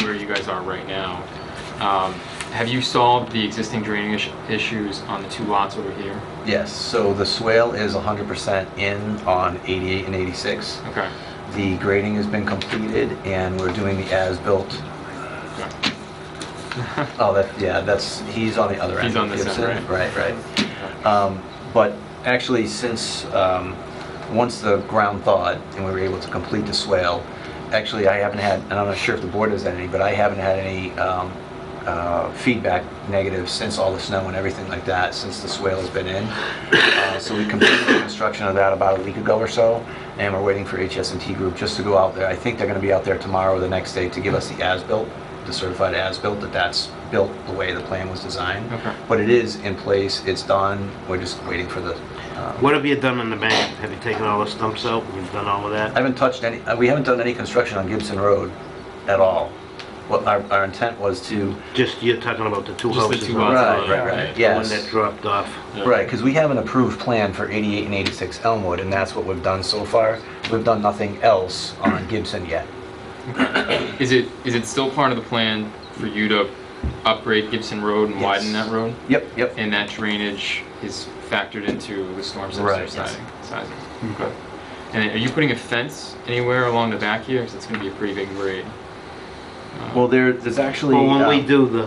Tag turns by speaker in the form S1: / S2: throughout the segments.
S1: guys are right now. Um, Have you solved the existing drainage issues on the two lots over here?
S2: Yes, so the swale is 100% in on 88 and 86.
S1: Okay.
S2: The grading has been completed and we're doing the as-built.
S1: okay.
S2: Oh, that, yeah, that's, he's on the other end.
S1: He's on this end,
S2: Gibson, Right, right. Um, But actually, since, um, once the ground thawed and we were able to complete the swale, actually, I haven't had, and I'm not sure if the board has had any, but I haven't had any um, uh, feedback negative since all the snow and everything like that, since the swale has been in. Uh, So we completed the construction of that about a week ago or so, and we're waiting for HS&T Group just to go out there. I think they're going to be out there tomorrow or the next day to give us the as-built, the certified as-built, that that's built the way the plan was designed.
S1: Okay.
S2: But it is in place, it's done, we're just waiting for the, uh,
S3: What have you done in the bank? Have you taken all the stumps out? You've done all of
S2: I
S3: that?
S2: haven't touched any, uh, we haven't done any construction on Gibson Road at all. What our, our intent was to,
S3: Just, you're talking about the two
S1: Just the
S3: houses?
S1: two
S3: on
S1: lots.
S2: right,
S1: on-
S2: right, right,
S3: The one
S2: yes.
S3: that dropped off.
S1: Yeah.
S2: Right, because we have an approved plan for 88 and 86 Elmwood, and that's what we've done so far. We've done nothing else on Gibson yet.
S1: Is it, is it still part of the plan for you to upgrade Gibson Road and widen
S2: Yes.
S1: that road?
S2: Yep, yep.
S1: And that drainage is factored into the storm system
S2: Right, yes. Mm-hmm.
S1: sizing? sizing. Okay. And are you putting a fence anywhere along the back here? Because it's going to be a pretty big grade.
S2: Well, there, there's actually.
S3: Well, when we
S2: uh,
S3: do the,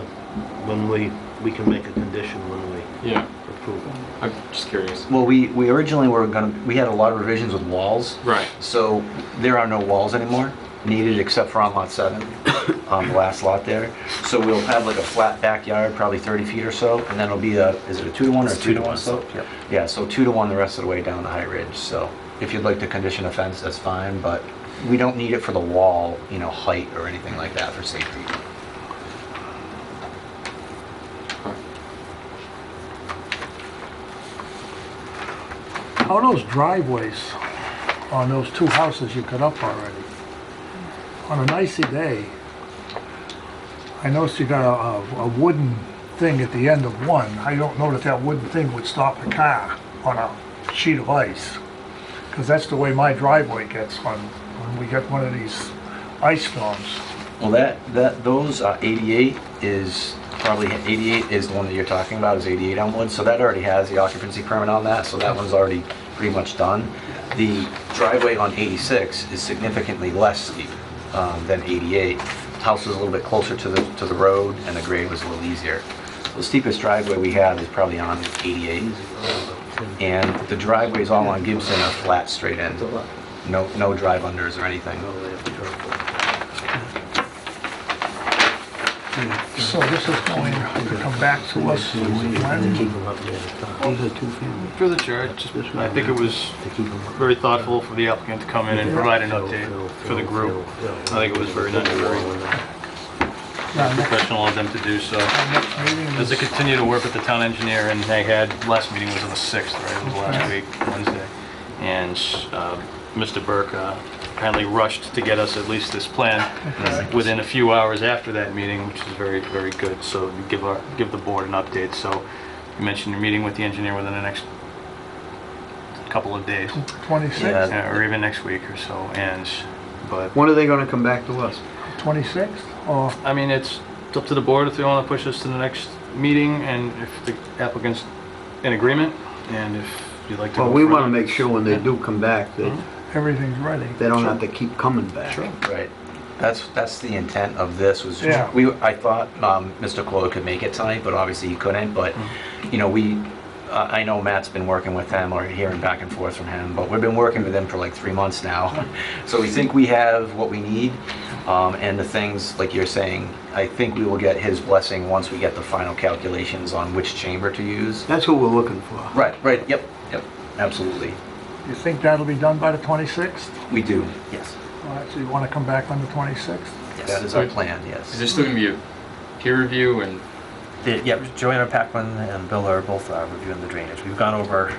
S3: when we, we can make a condition when we
S1: Yeah,
S3: approve it.
S1: I'm just curious.
S2: Well, we, we originally were gonna, we had a lot of revisions with walls.
S1: Right.
S2: So there are no walls anymore needed except for on lot seven, on the last lot there. So we'll have like a flat backyard, probably 30 feet or so, and then it'll be a, is it a two to one or
S4: It's
S2: two to one slope? Yep. Yeah, so two to one the rest of the way down the high ridge. So if you'd like to condition a fence, that's fine, but we don't need it for the wall, you know, height or anything like that for safety.
S4: How are those driveways on those two houses you cut up already? On a nicey day, I noticed you got a- a, a wooden thing at the end of one. I don't know that that wooden thing would stop the car on a sheet of ice. Because that's the way my driveway gets on, when we get one of these ice storms.
S2: Well, that, that, those, uh, 88 is probably, 88 is the one that you're talking about, is 88 Elmwood, so that already has the occupancy permit on that, so that one's already pretty much done. The driveway on 86 is significantly less steep um, than 88. House was a little bit closer to the, to the road, and the grade was a little easier. The steepest driveway we have is probably on 88, and the driveways all on Gibson are flat, straight in, no, no drive unders or anything.
S4: So this is going to come back to us. when?
S5: Through the chair, just- I think it was very thoughtful for the applicant to come in and provide an update for the group. I think it was very nice, very
S4: Now, next-
S5: professional of them to do so.
S4: next meeting
S5: As
S4: is-
S5: they continue to work with the town engineer, and they had, last meeting was on the 6th, right, it was last week, Wednesday. And uh, Mr. Burke uh, kindly rushed to get us at least this plan within a few hours after that meeting, which is very, very good, so give our, give the board an update. So you mentioned you're meeting with the engineer within the next couple of days,
S4: 26th,
S5: uh, or even next week or so, and, but,
S6: When are they gonna come back to us?
S4: 26th, or
S5: I mean, it's it's up to the board if they want to push this to the next meeting, and if the applicant's in agreement, and if you'd like to go
S6: Well, we wanna
S5: further.
S6: make sure when they do come back, that
S4: everything's ready.
S6: they don't have to keep coming back.
S5: Sure.
S2: Right. That's, that's the intent of this was,
S4: Yeah.
S2: we, I thought um, Mr. Clola could make it tonight, but obviously he couldn't. But, you know, we, I I know Matt's been working with them or hearing back and forth from him, but we've been working with them for like three months now. So we think we have what we need. um, And the things, like you're saying, I think we will get his blessing once we get the final calculations on which chamber to use.
S6: That's what we're looking for.
S2: Right, right, yep, yep, absolutely.
S4: You think that'll be done by the 26th?
S2: We do, yes.
S4: All right, so you want to come back on the 26th?
S2: That is our plan, yes.
S1: Is there still going to be a peer review and
S7: The- Yeah, Joanna Packman and Bill are both uh, reviewing the drainage. We've gone over,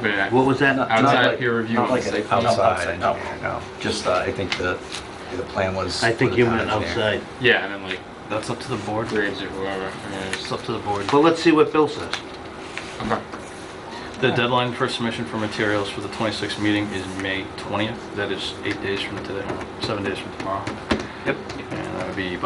S1: but I-
S3: What was that?
S2: Not
S1: Outside
S2: like-
S1: peer review
S2: Not
S1: on
S2: like
S1: the
S2: an
S1: site plan?
S2: outside
S7: Outside, no.
S2: engineer, no. Just, uh, I think the, the plan was.
S3: I think
S2: for the
S3: you
S2: town
S3: meant
S2: engineer.
S3: outside.
S1: yeah, and then like
S5: That's up to the board.
S1: Graves or whoever. I mean, it's-
S5: It's up to the board.
S3: Well, let's see what Bill says.
S1: okay.
S5: The deadline for submission for materials for the 26th meeting is May 20th. That is eight days from today, seven days from tomorrow. Yep. And that would be